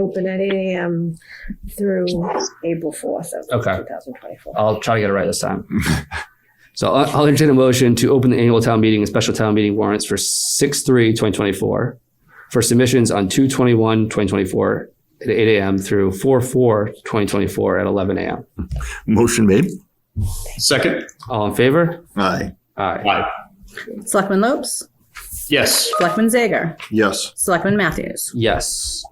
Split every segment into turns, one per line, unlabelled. open at 8 a.m. through April 4th of
Okay.
2024.
I'll try to get it right this time. so I'll, I'll entertain a motion to open the annual town meeting and special town meeting warrants for 6 3 2024 for submissions on 2 21 2024 at 8 a.m. through 4 4 2024 at 11 a.m.
Motion made.
Second?
All in favor?
Aye.
Aye.
Aye.
Selectman Lopes,
Yes.
Selectman Zager,
Yes.
Selectman Matthews.
Yes.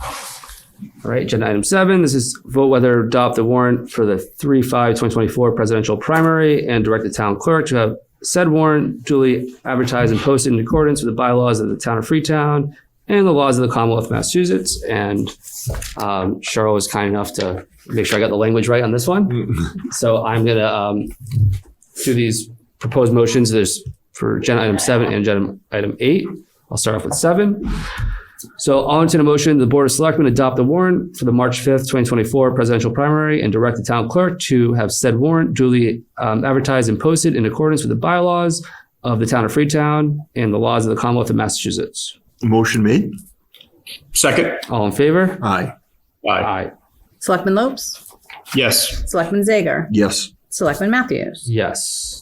All right, agenda item seven. This is vote whether to adopt the warrant for the 3 5 2024 presidential primary and direct the town clerk to have said warrant duly advertised and posted in accordance with the bylaws of the town of Freetown and the laws of the Commonwealth of Massachusetts. And um, Cheryl was kind enough to make sure I got the language right on this one. so I'm going to um, do these proposed motions. There's for agenda item seven and agenda item eight. I'll start off with seven. So I'll entertain a motion, the Board of Selectmen adopt the warrant for the March 5th, 2024 presidential primary and direct the town clerk to have said warrant duly um, advertised and posted in accordance with the bylaws of the town of Freetown and the laws of the Commonwealth of Massachusetts.
Motion made.
Second?
All in favor?
Aye.
Aye.
Aye.
Selectman Lopes,
Yes.
Selectman Zager,
Yes.
Selectman Matthews.
Yes.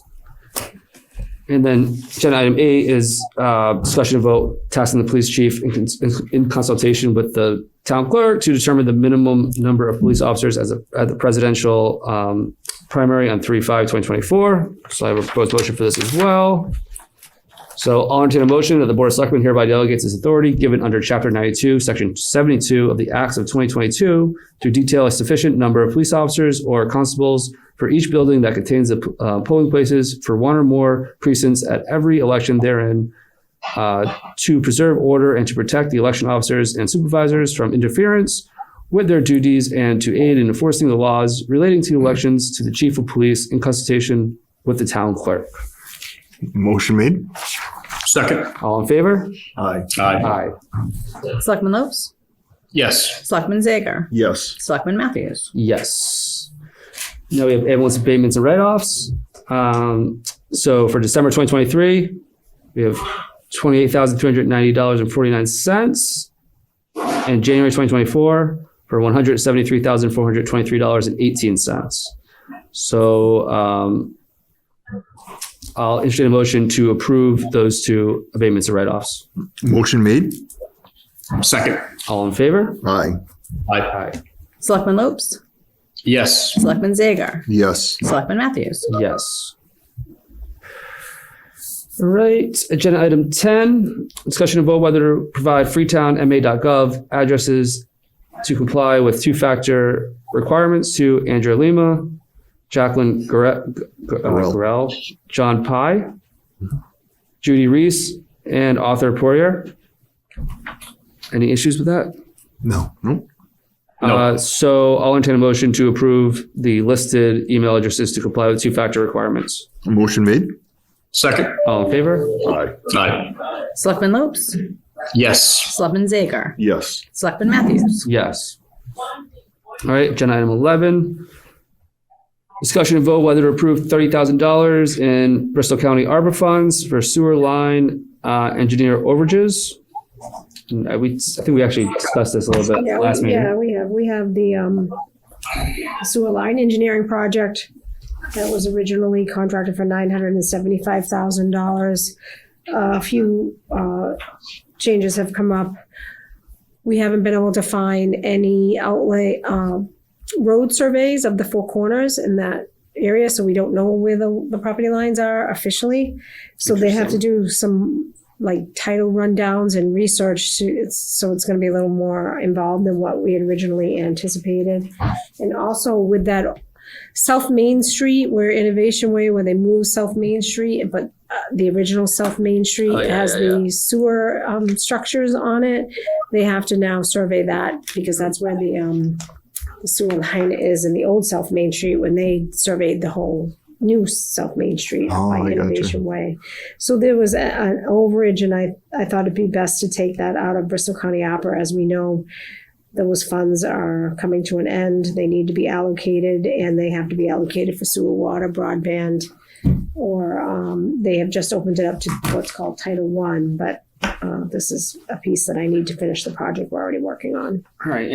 And then agenda item A is uh, discussion of vote tasking the police chief in, cons- in consultation with the town clerk to determine the minimum number of police officers as a, at the presidential um, primary on 3 5 2024. So I have a proposed motion for this as well. So I'll entertain a motion that the Board of Selectmen hereby delegates its authority given under Chapter 92, Section 72 of the Acts of 2022 to detail a sufficient number of police officers or constables for each building that contains the uh, polling places for one or more precincts at every election therein uh, to preserve order and to protect the election officers and supervisors from interference with their duties and to aid in enforcing the laws relating to elections to the chief of police in consultation with the town clerk.
Motion made.
Second?
All in favor?
Aye.
Aye.
Aye.
Selectman Lopes,
Yes.
Selectman Zager,
Yes.
Selectman Matthews.
Yes. Now we have ambulance abatements and write-offs. Um, so for December 2023, we have $28,390.49. And January 2024 for $173,423.18. So um, I'll entertain a motion to approve those two abatements and write-offs.
Motion made.
Second?
All in favor?
Aye.
Aye.
Aye.
Selectman Lopes,
Yes.
Selectman Zager,
Yes.
Selectman Matthews.
Yes. All right, agenda item ten, discussion of vote whether to provide freetownma.gov addresses to comply with two-factor requirements to Andrea Lima, Jacqueline Gore- G- uh,
Gorell.
Gorell, John Pye, Judy Reese, and Arthur Poirier. Any issues with that?
No. No.
No.
Uh, so I'll entertain a motion to approve the listed email addresses to comply with two-factor requirements.
Motion made.
Second?
All in favor?
Aye.
Aye.
Selectman Lopes,
Yes.
Selectman Zager,
Yes.
Selectman Matthews.
Yes. All right, agenda item 11. Discussion and vote whether to approve $30,000 in Bristol County Arbor funds for sewer line uh, engineer overages. And I- we, I think we actually discussed this a little bit
Yeah,
last
we, yeah,
meeting.
we have, we have the, um, sewer line engineering project that was originally contracted for nine hundred and seventy-five thousand dollars. A few, uh, changes have come up. We haven't been able to find any outlay, um, road surveys of the four corners in that area, so we don't know where the, the property lines are officially. So they have to do some like title rundowns and research to, it's, so it's going to be a little more involved than what we had originally anticipated. And also with that South Main Street, where Innovation Way, where they moved South Main Street, but uh, the original South Main
Oh,
Street
yeah,
has
yeah,
the sewer um, structures on it. They have to now survey that because that's where the um, the sewer line is in the old South Main Street when they surveyed the whole new South Main Street
Oh, I
by
gotcha.
Innovation Way. So there was a, an overage, and I, I thought it'd be best to take that out of Bristol County Opera. As we know, those funds are coming to an end. They need to be allocated, and they have to be allocated for sewer, water, broadband, or um, they have just opened it up to what's called Title One. But uh, this is a piece that I need to finish the project we're already working on.
All right,